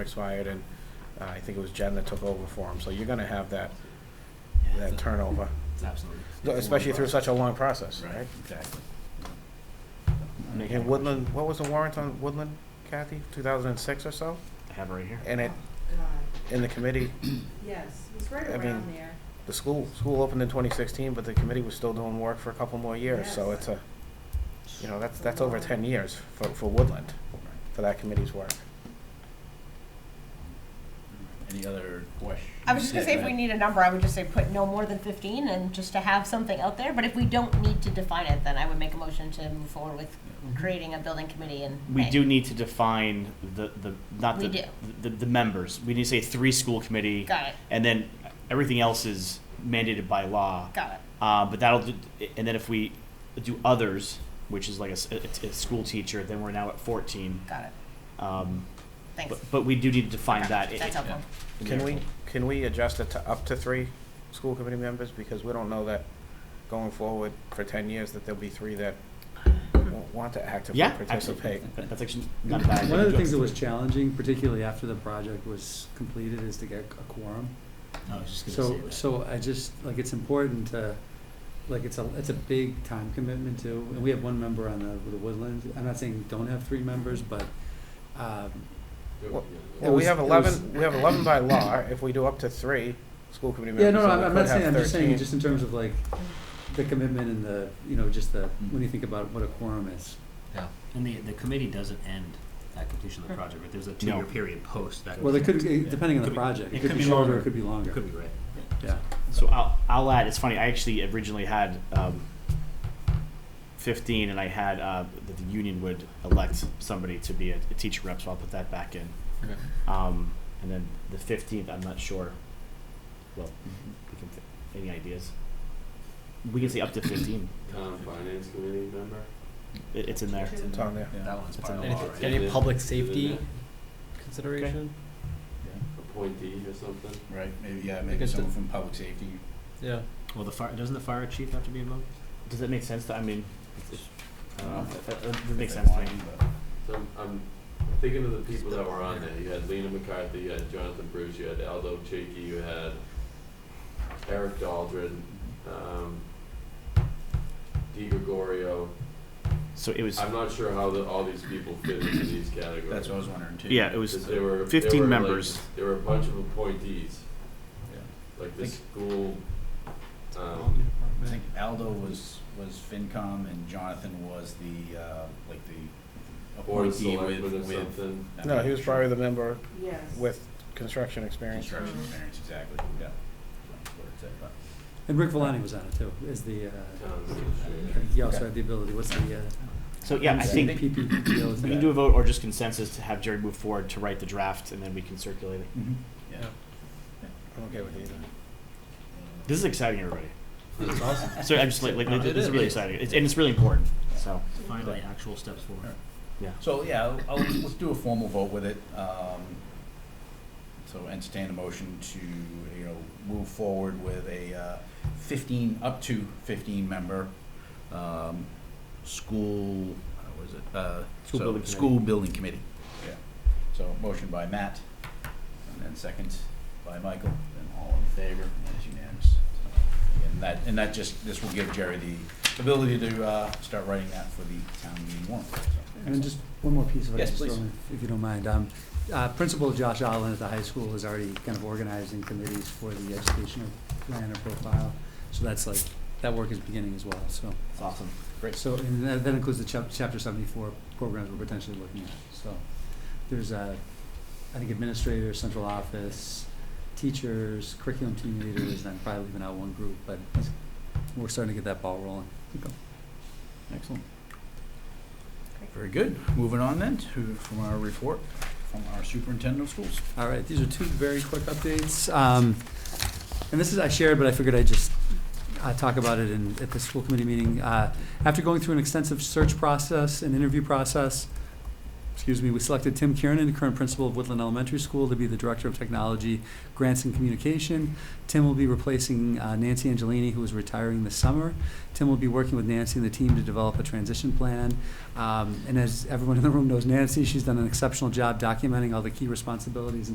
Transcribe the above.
expired, and uh, I think it was Jen that took over for him, so you're gonna have that, that turnover, It's absolutely. especially through such a long process, Right, right? exactly. And Woodland, what was the warrant on Woodland, Kathy, two thousand and six or so? I have it right here. And it, God, in the committee, Uh, Yes, it was right I mean, around there. the school, school opened in twenty sixteen, but the committee was still doing work for a couple more years, so Yes. it's a, you know, that's, that's over ten years for, for Woodland, for that committee's work. Any other questions? I was just gonna say, if we need a number, I would just say put no more than fifteen and just to have something out there, but if we don't need to define it, then I would make a motion to move forward with creating a building committee in We May. do need to define the, the, not We the, do. the, the members. We need to say three school committee. Got it, And then everything else is mandated by law. got it. Uh, but that'll, do, and then if we do others, which is like a, s- a- a school teacher, then we're now at fourteen. Got it. Um, Thanks. but, but we do need to define Okay, that. i- That's helpful. in Can there. we, can we adjust it to up to three school committee members, because we don't know that going forward for ten years that there'll be three that won't want to actively Yeah, absolutely. participate. That- That's actually not a bad. One of the idea. things that was challenging, particularly after the project was completed, is to get a quorum. I was just So, gonna say that. so I just, like, it's important to, like, it's a, it's a big time commitment too. And we have one member on the, the Woodlands. I'm not saying don't have three members, but, um, It Well, we was- have it eleven, we have eleven by law, if we do up to three school committee members. yeah, no, so no, I'm we I'm could not saying, have I'm just saying, 13. just in terms of like, the commitment and the, you know, just the, when you think about what a quorum is. Yeah, and the, the committee doesn't end at completion of the project, but there's a two-year period post that. Well, it could, Yeah. depending on Could the be- project, it it could could be be shorter, longer. it could be longer, It could be right. yeah. So I'll, I'll add, it's funny, I actually originally had um, 15 and I had uh, that the union would elect somebody to be a, a teacher rep, so I'll put that back in. Okay. Um, and then the 15th, I'm not sure. Well, we can fi- any ideas? We can say up to 15. Town Finance Committee member? It, it's in there. It's on there. That one's It's part of in the the law, law, right? Any public safety? Consideration? Appointee or something? Right, maybe, yeah, maybe someone from public safety. Yeah. Well, the fire, doesn't the fire chief have to be involved? Does that make sense? To, I mean, it's- I don't know. That, that- that makes If sense they to me. want, but- So I'm- I'm thinking of the people that were on there. You had Lena McCarthy, you had Jonathan Bruce, you had Aldo Chiki, you had Eric Daldren, um, Di Gregorio. So it was, I'm not sure how the, all these people fit into these categories. That's what I was wondering too. yeah, it was 'Cause they were- they 15 were like- members. There were a bunch of appointees. Yeah. Like the Think- school, um, I think Aldo was, was FinCom and Jonathan was the, uh, like the board of appointee with, selectmen or with. something. I'm No, not he was sure. probably the member Yes. with construction experience. Construction experience, exactly, yeah. That's what it said, but- And Rick Valani was on it too, as the, uh, Town I administrator. think he also had the ability, what's the, uh, So yeah, I think PPPO is We that? can do a vote or just consensus to have Jerry move forward to write the draft and then we can circulate it. Yeah. I'm okay with either. This is exciting, everybody. That's awesome. So I'm just like, like It this is is. really exciting. It's, and it's really important. So finally actual steps forward. So, yeah, I'll- I'll, let's do a formal vote with it. Um, so entertain a motion to, you know, move forward with a uh, fifteen, up to fifteen member, um, school, how was it? Uh, so, School building School building committee, yeah. So motion by Matt, and then second by Michael, and all in favor, and it's unanimous. So, And that, and that just, this will give Jerry the ability to, uh, start writing that for the town meeting warrant. so. And then just one more piece of it. Yes, just please. throwing, If you don't mind, um, uh, Principal Josh Allen at the high school is already kind of organizing committees for the educational plan or profile. So that's like, that work is beginning as well, so. it's awesome. Great. So, and that, that includes the chap- chapter seventy-four programs we're potentially looking at, so. There's a, I think administrators, central office, teachers, curriculum team leaders, and I'm probably leaving out one group, but it's- we're starting to get that ball rolling. Excellent. Very good. Moving on then to, from our report, from our superintendent of schools. All right, these are two very quick updates. Um, And this is, I shared, but I figured I'd just uh, talk about it in, at the school committee meeting. Uh, After going through an extensive search process and interview process, excuse me, we selected Tim Kiernan, current principal of Woodland Elementary School, to be the Director of Technology, Grants and Communication. Tim will be replacing uh, Nancy Angelini, who is retiring this summer. Tim will be working with Nancy and the team to develop a transition plan. Um, And as everyone in the room knows, Nancy, she's done an exceptional job documenting all the key responsibilities and